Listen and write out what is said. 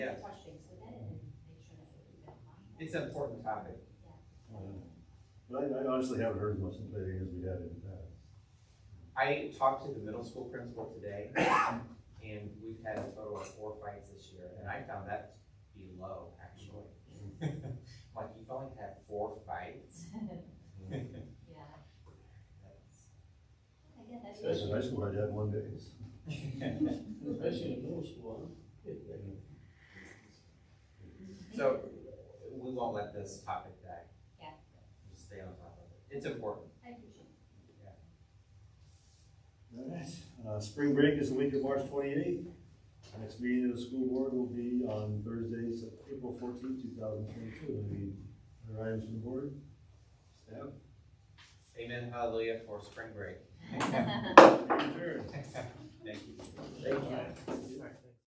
It's an important topic. But I, I honestly haven't heard as much today as we had in the past. I talked to the middle school principal today, and we've had a total of four fights this year, and I found that to be low, actually. Like, you've only had four fights? Yeah. I get that. Especially in high school, I'd had one day. Especially in middle school, huh? So, we won't let this topic die. Yeah. We'll Stay on top of it. It's important. I appreciate it. All right, uh, spring break is the week of March twenty-eighth. Next meeting of the school board will be on Thursday, Sep- April fourteenth, two thousand twenty-two. Any other items from the board? Staff? Amen, hallelujah for spring break. Adjourned. Thank you. Thank you.